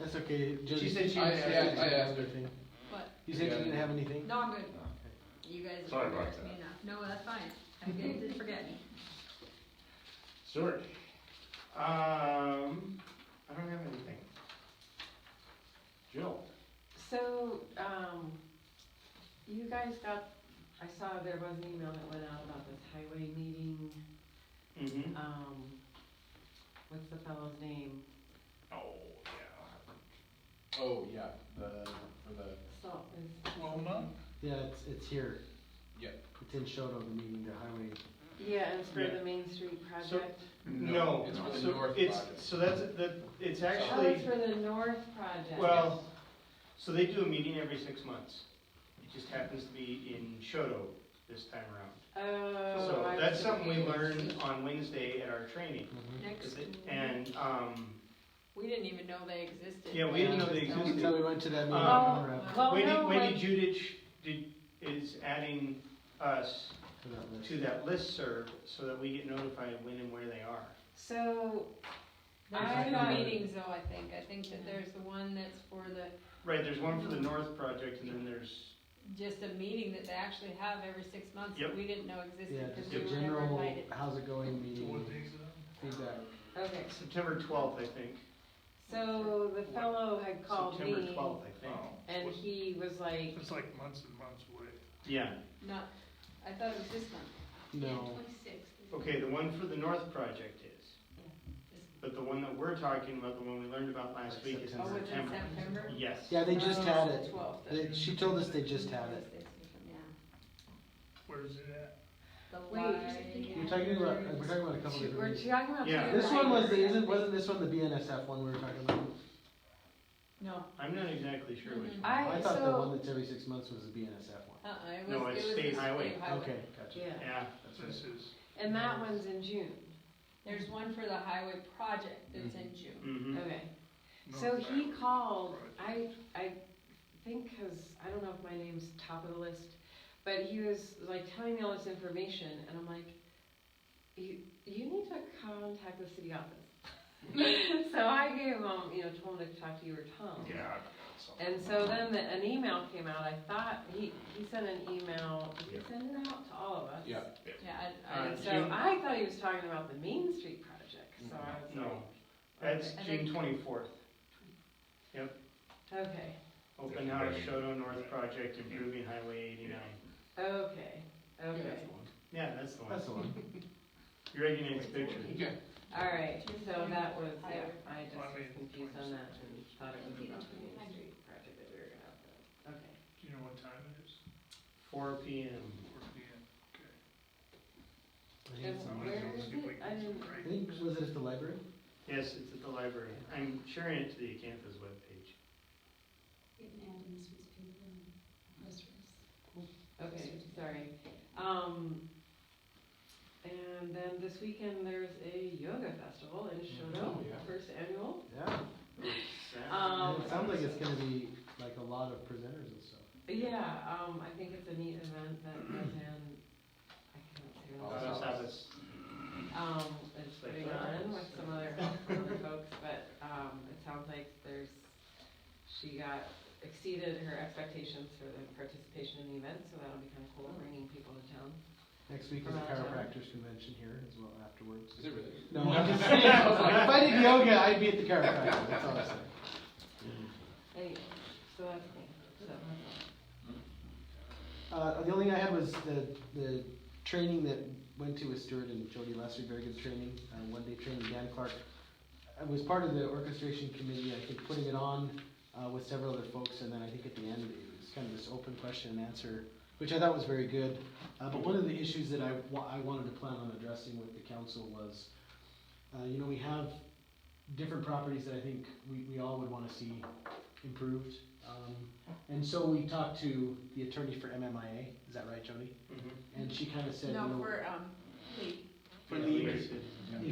That's okay, just. She said she I- was- I- yeah, I I asked her. everything. What? You said you Yeah. didn't have anything? No, I'm good. No. You guys Sorry are about embarrassing that. me enough. No, that's fine. I guys didn't forget me. Stuart? Um, I don't have anything. Jill? So, um, you guys got, I saw there was an email that went out about this highway meeting, Mm-hmm. um, what's the fellow's name? Oh, yeah. Oh, yeah, the, for the, Salt is, Wilma? Yeah, it's, it's here. Yeah. It's in Shoto, the meeting, the highway. yeah, and it's for the Main Street project. No. It's for the So north it's- project. So that's, that, it's Oh, it's actually, for the North project. well, so they do a meeting every six months. It just happens to be in Shoto this time around. Oh. So I that's see. something we learned on Wednesday at our training. Next, And, um, we didn't even know they existed. Yeah, we didn't know they existed. Until we went to that meeting. Um, we were up Well, Wendy, Oh, no, Wendy like- Judich did, is adding us to that list. to that listserv so that we get notified when and where they are. So, There's I- two meetings though, I think. I think that there's the one that's for the, Right, there's one for the Mm-hmm. North Project and then there's just a meeting that they actually have every six months that Yep. we didn't know Yeah, existed because just we a were never general, invited. how's it going meeting, feedback. okay, September twelfth, I think. so the fellow had called September me, twelfth, I Oh. think. and he was like, It's like months and months away. Yeah. Not, I thought it was this month. No, Okay, the one for the North Project is. But the one that we're talking about, the one we learned about last Like week is in September. Oh, it's in September. September? Oh, Yes. yeah, they just had The it. twelfth. They, she told us they just had it. Yeah. Where is it at? The Wait, light. We're talking about, uh, we're talking about a couple different we're meetings. talking about. Yeah. This one was, the isn't, wasn't this one the BNSF one we were talking about? No, I'm not exactly sure which Mm-hmm. one. I, I so. thought the one that's every six months was the BNSF one. uh-uh, it was, it No, was it's the state state highway. highway. Okay, gotcha. Yeah, Yeah, This that's right. is, and that one's in June, There's one for the highway project that's in June. Mm-hmm. okay. no, So he that- called, I, I think, cause I don't know if my name's top of the list, but he was like telling me all this information and I'm like, you, you need to contact the city office. So I gave him, you know, told him to talk to you or Tom. Yeah. I've got something. And so then the, an email came out, I thought, he, he sent an email, did Yeah. he send it out to all of us? Yeah. Yeah, I, I, Uh, And so June- I thought he was talking about the Main Street project, so I was No, like, that's I June think- twenty-fourth. okay, Open House, Shoto North Project, improving Highway eighty-nine. okay, okay. Yeah, that's the one. That's the one. You're making its picture. Okay. All right, so that was, yeah, I just Well, I was mean, confused on that and thought it was Maybe about that's the Main what we Street project that we were gonna, have, but, okay. Do you know what time it is? Four P M. Four P M, okay. I think it's And on- someone where else is see if we can it? I get some didn't, I right- think, was it at the library? Yes, it's at the library. I'm sharing it to the campus webpage. okay, sorry. Um, and then this weekend, there's a yoga festival in Shoto, yeah. first annual. Yeah. Um, It sounds like it's gonna be like a lot of presenters and stuff. Yeah, um, I think it's a neat event that goes in, I can't say Oh, what it's Uh, called. Sabbath. um, it's putting on with some other help from other folks, but, um, it sounds like there's, she got, exceeded her expectations for the participation in the event, so that'll be kinda cool, bringing people to town. Next week is a Around town. chiropractor's convention here as well afterwards. Is it really? No, I'm just saying, if I did yoga, I'd be at the chiropractor, that's all I'm saying. Anyway, so that's me, so. Uh, the only thing I had was the, the training that went to with Stuart and Jody last week, very good training, uh, one day training, Dan Clark. I was part of the orchestration committee, I think, putting it on, uh, with several other folks, and then I think at the end, it was kind of this open question and answer, which I thought was very good. Uh, but one of the issues that I, wa- I wanted to plan on addressing with the council was, uh, you know, we have different properties that I think we, we all would wanna see improved. Um, and so we talked to the attorney for MMIA, is that right, Jody? Mhm. And she kind of said, you No, know, for, um, Lee. For Yeah, league. league.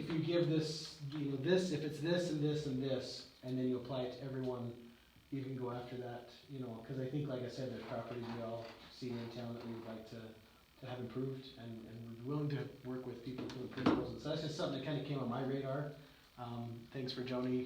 if you give this, you know, this, if it's this and this and this, and then you apply it to everyone, you can go after that, you know, because I think, like I said, there's properties we all see in town that we'd like to, to have improved, and, and we're willing to work with people to improve those. And so that's just something that kind of came on my radar. Um, thanks for Joni